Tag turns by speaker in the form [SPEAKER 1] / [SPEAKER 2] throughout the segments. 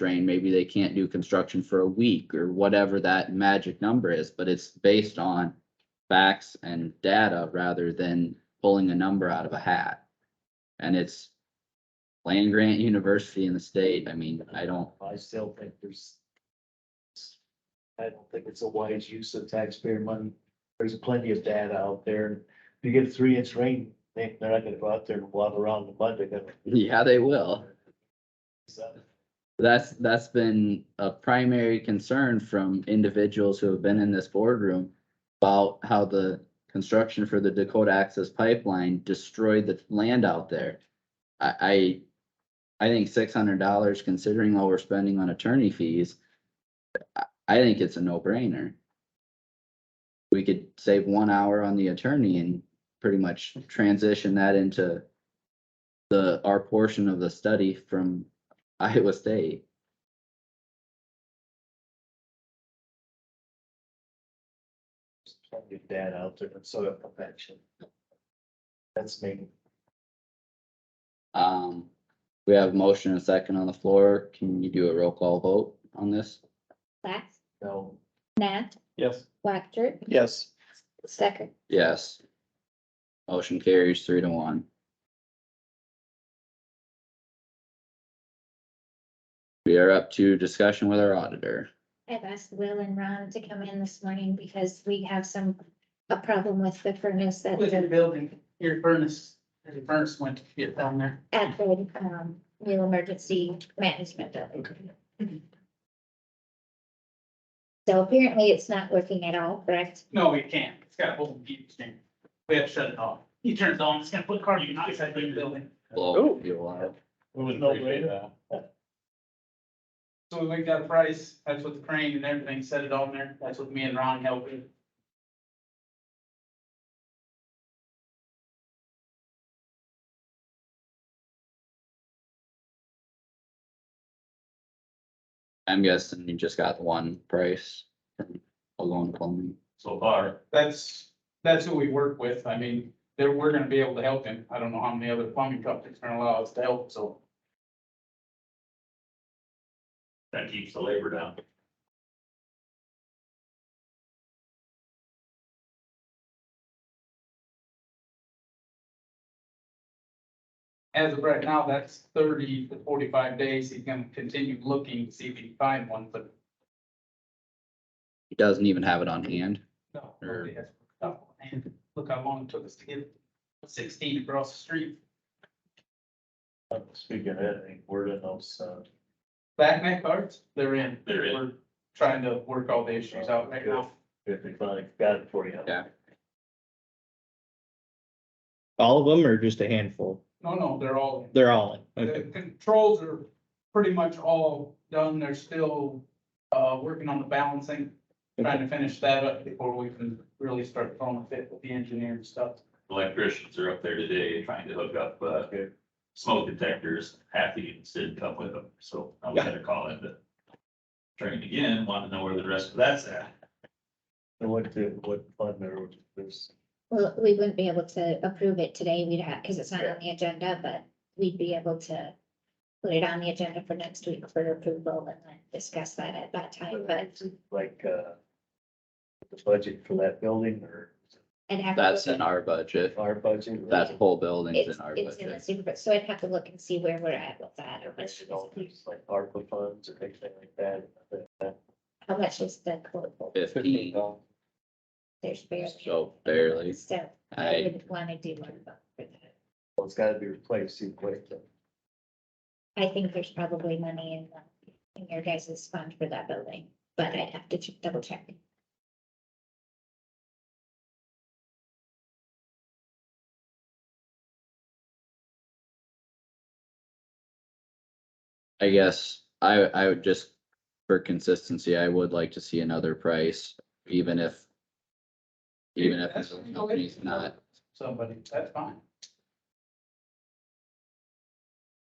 [SPEAKER 1] drain, maybe they can't do construction for a week or whatever that magic number is, but it's based on facts and data rather than pulling a number out of a hat. And it's land grant university in the state. I mean, I don't,
[SPEAKER 2] I still think there's. I don't think it's a wise use of taxpayer money. There's plenty of data out there. If you get a three inch rain, they, they're not gonna go out there and walk around the mud. They're gonna.
[SPEAKER 1] yeah, they will.
[SPEAKER 2] So,
[SPEAKER 1] That's, that's been a primary concern from individuals who have been in this boardroom about how the construction for the Dakota Access Pipeline destroyed the land out there. I, I, I think six hundred dollars, considering all we're spending on attorney fees, I, I think it's a no-brainer. We could save one hour on the attorney and pretty much transition that into the, our portion of the study from Iowa State.
[SPEAKER 2] there's Plenty of data out there and soil perfection. That's me.
[SPEAKER 1] Um, we have a motion and a second on the floor. Can you do a roll call vote on this?
[SPEAKER 3] Plath,
[SPEAKER 2] No.
[SPEAKER 3] Nat,
[SPEAKER 2] Yes.
[SPEAKER 3] Whacker,
[SPEAKER 2] Yes.
[SPEAKER 3] Stecker.
[SPEAKER 1] Yes. Motion carries three to one. We are up to discussion with our auditor.
[SPEAKER 3] I've asked Will and Ron to come in this morning because we have some, a problem with the furnace at
[SPEAKER 4] Within the
[SPEAKER 3] the,
[SPEAKER 4] building, your furnace, the furnace went to get down there.
[SPEAKER 3] at the, um, new emergency management building. So apparently it's not working at all, correct?
[SPEAKER 4] No, we can't. It's got a whole heat stand. We have to shut it off. He turns it on, it's gonna put carbon monoxide in the building.
[SPEAKER 1] Blow people out.
[SPEAKER 2] We would appreciate that.
[SPEAKER 4] So we got a price, that's what the crane and everything set it on there. That's what me and Ron helped with.
[SPEAKER 1] I'm guessing you just got one price from Alone Plumbing.
[SPEAKER 4] So far. That's, that's who we work with. I mean, they're, we're gonna be able to help him. I don't know how many other plumbing companies are gonna allow us to help, so.
[SPEAKER 5] That keeps the labor down.
[SPEAKER 4] As of right now, that's thirty to forty-five days. He's gonna continue looking, to see if he can find one, but
[SPEAKER 1] He doesn't even have it on hand.
[SPEAKER 4] no.
[SPEAKER 1] Sure.
[SPEAKER 4] nobody has worked out. And look how long it took us to get sixteen across the street.
[SPEAKER 2] Speaking of that, any word on those, uh,
[SPEAKER 4] Back net cards, they're in.
[SPEAKER 5] They're in.
[SPEAKER 4] We're Trying to work all the issues out right now.
[SPEAKER 2] if they finally got it for you.
[SPEAKER 1] Yeah.
[SPEAKER 6] All of them or just a handful?
[SPEAKER 4] No, no, they're all in.
[SPEAKER 6] They're all in.
[SPEAKER 4] The
[SPEAKER 6] Okay.
[SPEAKER 4] controls are pretty much all done. They're still, uh, working on the balancing. Trying to finish that up before we can really start throwing a fit with the engineer and stuff.
[SPEAKER 5] Electricians are up there today trying to hook up, uh, smoke detectors. Half the units didn't come with them, so I'm
[SPEAKER 6] Yeah.
[SPEAKER 5] gonna call it the train again, want to know where the rest of that's at.
[SPEAKER 2] And what, the- what fund there was, there's,
[SPEAKER 3] Well, we wouldn't be able to approve it today. We'd have, because it's not on the agenda, but we'd be able to put it on the agenda for next week for approval and then discuss that at that time, but
[SPEAKER 2] like, uh, the budget for that building or
[SPEAKER 3] I'd have. to
[SPEAKER 1] That's
[SPEAKER 3] look
[SPEAKER 1] in
[SPEAKER 3] at-
[SPEAKER 1] our budget.
[SPEAKER 2] our budget?
[SPEAKER 1] That whole building's
[SPEAKER 3] It's,
[SPEAKER 1] in our
[SPEAKER 3] it's in the
[SPEAKER 1] budget.
[SPEAKER 3] super, so I'd have to look and see where we're at with that.
[SPEAKER 2] Or
[SPEAKER 3] how much
[SPEAKER 2] maybe
[SPEAKER 3] is-
[SPEAKER 2] all these like ARPA funds or anything like that.
[SPEAKER 3] How much is the quote?
[SPEAKER 1] Fifteen,
[SPEAKER 3] There's barely.
[SPEAKER 1] so barely.
[SPEAKER 3] So I
[SPEAKER 1] I,
[SPEAKER 3] wouldn't want to do one vote for that.
[SPEAKER 2] Well, it's gotta be replaced, see, quick.
[SPEAKER 3] I think there's probably money in, the- in your guys' fund for that building, but I'd have to ch- double check.
[SPEAKER 1] I guess I, I would just, for consistency, I would like to see another price, even if. Even if
[SPEAKER 4] That's-
[SPEAKER 1] the company's not,
[SPEAKER 4] Somebody, that's fine.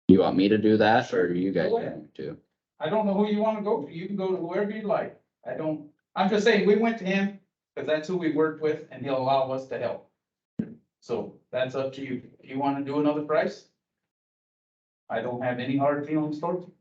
[SPEAKER 1] you want me to do that or do you guys
[SPEAKER 4] Go ahead.
[SPEAKER 1] want to?
[SPEAKER 4] I don't know who you wanna go to. You can go to wherever you like. I don't, I'm just saying, we went to him, cause that's who we worked with and he'll allow us to help. So that's up to you. You wanna do another price? I don't have any hard feelings towards you.